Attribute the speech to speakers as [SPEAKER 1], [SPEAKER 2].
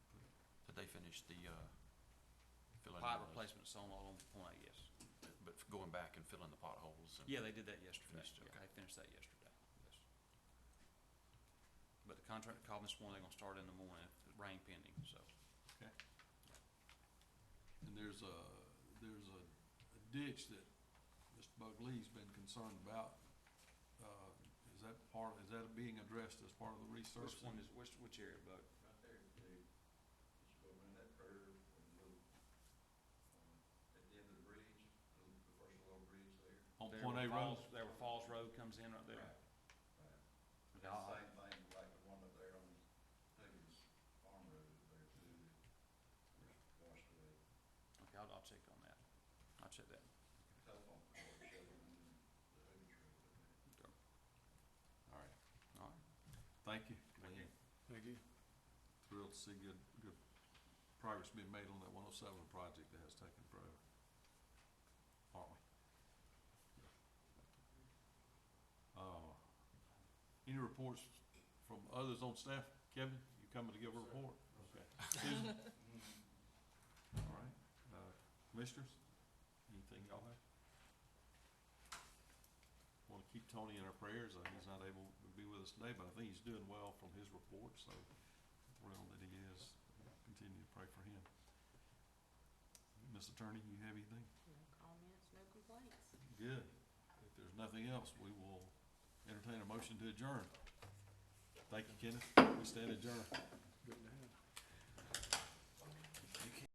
[SPEAKER 1] finish the, uh, filling.
[SPEAKER 2] Pipe
[SPEAKER 1] the-
[SPEAKER 2] replacement's on all on the point, yes.
[SPEAKER 1] But going back and filling the potholes and.
[SPEAKER 2] Yeah, they did that yesterday.
[SPEAKER 1] Finished,
[SPEAKER 2] Yeah,
[SPEAKER 1] okay.
[SPEAKER 2] they finished that yesterday, yes. But the contractor called this morning, they're gonna start in the morning, if- rain pending, so.
[SPEAKER 3] Okay. And there's a, there's a a ditch that Mr. Bugley's been concerned about. Uh, Is that part, is that being addressed as part of the research?
[SPEAKER 2] Which one is, which, which area, Bud?
[SPEAKER 4] Right there, dude, you go around that curve and go, um, at the end of the bridge, the the first little bridge there.
[SPEAKER 3] On
[SPEAKER 2] There
[SPEAKER 3] Point A
[SPEAKER 2] where
[SPEAKER 3] Road?
[SPEAKER 2] Falls- There where Falls Road comes in right there.
[SPEAKER 4] Right, right. It's
[SPEAKER 2] Okay,
[SPEAKER 4] the
[SPEAKER 2] I'll-
[SPEAKER 4] same thing like the one up there on Higgins Farm Road there too, that was washed away.
[SPEAKER 2] Okay, I'll, I'll check on that. I'll check that.
[SPEAKER 4] Telephone pole shoving in the Higgins Road up there.
[SPEAKER 3] All right,
[SPEAKER 2] All right.
[SPEAKER 3] thank you.
[SPEAKER 2] Thank you.
[SPEAKER 5] Thank you.
[SPEAKER 3] Thrilled to see good, good progress being made on that one oh seven project that has taken forever. Aren't we? Uh, any reports from others on staff? Kevin, you coming to give a report? Okay. Susan? All right, uh, commissioners, anything y'all have? Wanna keep Tony in our prayers, uh, he's not able to be with us today, but I think he's doing well from his report, so thrilled that he is. Continue to pray for him. Miss Attorney, you have anything?
[SPEAKER 6] No comments, no complaints.
[SPEAKER 3] Good. If there's nothing else, we will entertain a motion to adjourn. Thank you, Kenneth. We stand adjourned.